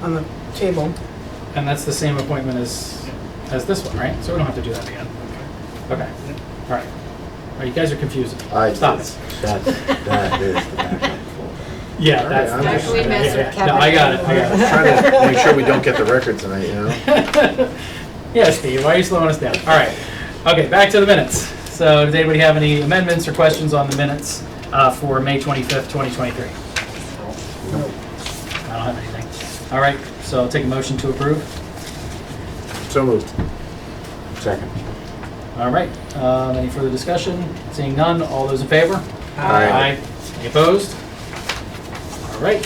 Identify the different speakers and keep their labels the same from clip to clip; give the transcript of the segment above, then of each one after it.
Speaker 1: on the table.
Speaker 2: And that's the same appointment as, as this one, right? So we don't have to do that again. Okay, all right. All right, you guys are confusing. me.
Speaker 3: I
Speaker 2: Stop
Speaker 3: did.
Speaker 2: it.
Speaker 3: That, that is the backup folder.
Speaker 2: Yeah, that's.
Speaker 3: All right, I'm just-
Speaker 4: Don't we mess with
Speaker 2: Yeah, yeah. No, I got it, I got it.
Speaker 3: Trying to make sure we don't get the record tonight, you know?
Speaker 2: Yeah, Steve, why are you slowing us down? All right. Okay, back to the minutes. So does anybody have any amendments or questions on the minutes uh, for May 25th, 2023? I don't have anything. All right, so I'll take a motion to approve.
Speaker 3: So moved. Second.
Speaker 2: All right, um, any further discussion? Seeing none, all those in favor? Any opposed? All right.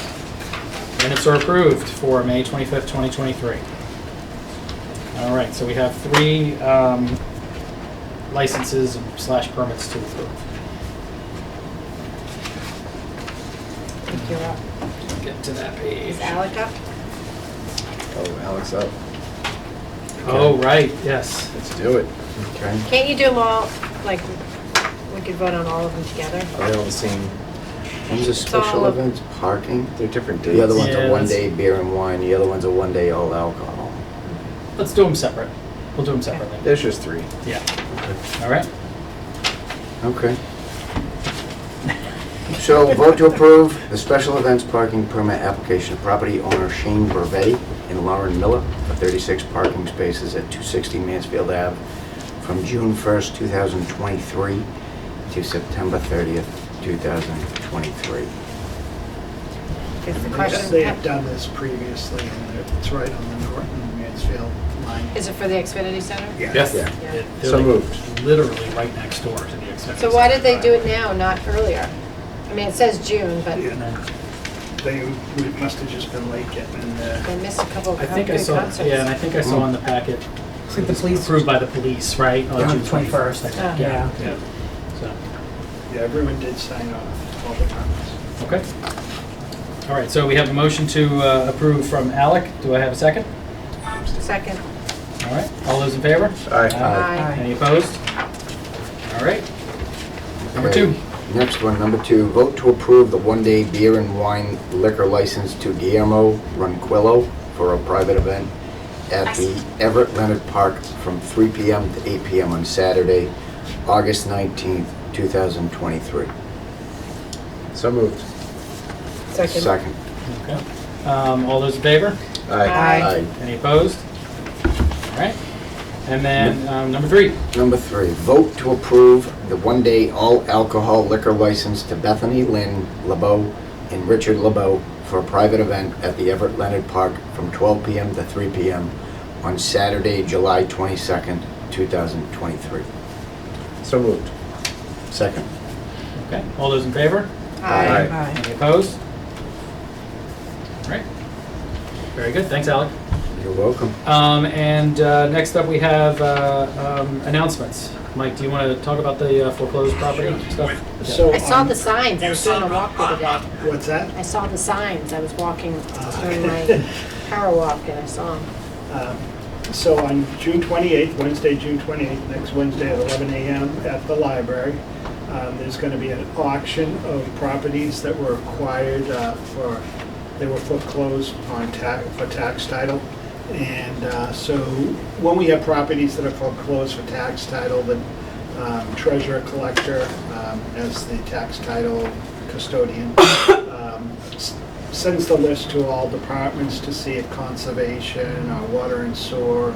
Speaker 2: Minutes are approved for May 25th, 2023. All right, so we have three um, licenses slash permits to approve.
Speaker 4: I think you're up.
Speaker 2: Get to that page.
Speaker 4: Is Alec up?
Speaker 3: Oh, Alex up.
Speaker 2: Oh, right, yes.
Speaker 3: Let's do it.
Speaker 5: Okay,
Speaker 4: Can't you do them all, like, we could vote on all of them together?
Speaker 5: are they all the same? One's a
Speaker 4: It's all
Speaker 5: special
Speaker 4: of-
Speaker 5: events, parking.
Speaker 3: They're different dates.
Speaker 5: The other one's
Speaker 2: Yeah,
Speaker 5: a
Speaker 2: that's-
Speaker 5: one-day beer and wine, the other one's a one-day all alcohol.
Speaker 2: Let's do them separate. We'll do them separately.
Speaker 3: There's just three.
Speaker 2: Yeah. All right.
Speaker 5: Okay. So vote to approve the special events parking permit application of property owner Shane Burbetti and Lauren Miller for 36 parking spaces at 260 Mansfield Ave from June 1st, 2023 to September 30th, 2023.
Speaker 4: Is the
Speaker 6: Yes, They have
Speaker 4: question,
Speaker 6: done this previously, and it's right on the Norton Mansfield line.
Speaker 4: is it for the Xfinity Center?
Speaker 2: Yes.
Speaker 3: Yeah.
Speaker 4: Yeah.
Speaker 2: They're
Speaker 3: So
Speaker 2: like
Speaker 3: moved.
Speaker 2: Literally right next door to the Xfinity.
Speaker 4: So why did they do
Speaker 2: Center.
Speaker 4: it now, not earlier? I mean, it says June, but
Speaker 6: And then They, we must have just been late getting in there.
Speaker 4: they missed a couple of
Speaker 2: I
Speaker 4: good
Speaker 2: think I
Speaker 4: concerts.
Speaker 2: saw, yeah, and I think I
Speaker 3: Mm.
Speaker 2: saw in the packet,
Speaker 1: It's like the police
Speaker 2: approved by the police, right? on
Speaker 1: on
Speaker 2: June
Speaker 1: the twenty-first, I
Speaker 4: Oh.
Speaker 1: think, yeah.
Speaker 2: Yeah. So.
Speaker 6: Yeah, everyone did sign off, all the comments.
Speaker 2: Okay. All right, so we have a motion to uh, approve from Alec. Do I have a second?
Speaker 4: Second,
Speaker 2: All right, all those in favor?
Speaker 3: Aye.
Speaker 4: Aye.
Speaker 2: Any opposed? All right. Number
Speaker 5: Okay,
Speaker 2: two.
Speaker 5: Next one, number two, vote to approve the one-day beer and wine liquor license to Guillermo Ronquillo for a private event at the Everett Leonard Park from 3 PM to 8 PM on Saturday, August 19th, 2023.
Speaker 3: So moved.
Speaker 4: second.
Speaker 5: Second.
Speaker 2: Okay. Um, All those in favor?
Speaker 4: Aye.
Speaker 2: Any opposed? All right. And then um, number three.
Speaker 5: Number three, vote to approve the one-day all-alcohol liquor license to Bethany Lynn LeBeau and Richard LeBeau for a private event at the Everett Leonard Park from 12 PM to 3 PM on Saturday, July 22nd, 2023.
Speaker 3: So moved.
Speaker 5: Second.
Speaker 2: Okay, all those in favor?
Speaker 4: Aye.
Speaker 1: Aye.
Speaker 2: Any opposed? All right. Very good, thanks, Alec.
Speaker 5: You're welcome.
Speaker 2: Um, And uh, next up, we have uh, um, announcements. Mike, do you want to talk about the uh, foreclosed property stuff? Yeah.
Speaker 6: So
Speaker 4: I saw
Speaker 6: on-
Speaker 4: the signs, I was doing a walk the other day.
Speaker 6: What's that?
Speaker 4: I saw the signs, I was walking
Speaker 6: Ah.
Speaker 4: during my power walk and I saw them.
Speaker 6: Um, So on June 28th, Wednesday, June 28th, next Wednesday at 11 a.m. at the library, um, there's going to be an auction of properties that were acquired uh, for, they were foreclosed on tax, for tax title. And uh, so when we have properties that are foreclosed for tax title, the um, treasurer collector um, as the tax title custodian um, s- sends the list to all departments to see if conservation or water and sewer,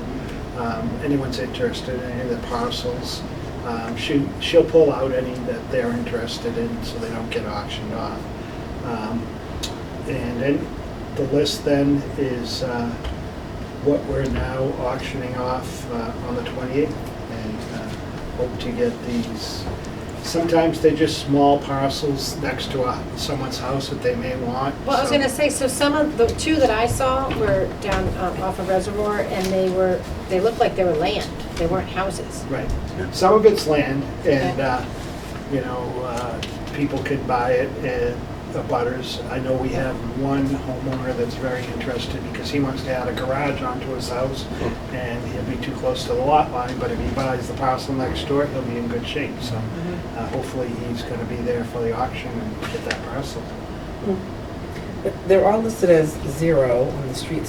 Speaker 6: um, anyone's interested in any of the parcels. Um, She, she'll pull out any that they're interested in so they don't get auctioned off. Um, And then the list then is uh, what we're now auctioning off uh, on the 28th and uh, hope to get these Sometimes they're just small parcels next to a- someone's house that they may want.
Speaker 4: Well, I was
Speaker 6: so-
Speaker 4: gonna say, so some of the two that I saw were down um, off a reservoir, and they were, they looked like they were land, they weren't houses.
Speaker 6: Right.
Speaker 5: Yeah.
Speaker 6: Some of it's land, and,
Speaker 4: Okay.
Speaker 6: uh, you know, uh, people could buy it, and the butters. I know we have one homeowner that's very interested, because he wants to add a garage onto his house, and he'll be too close to the lot line, but if he buys the parcel next door, he'll be in good shape, so uh, hopefully he's gonna be there for the auction and get that parcel.
Speaker 1: They're all listed as zero on the streets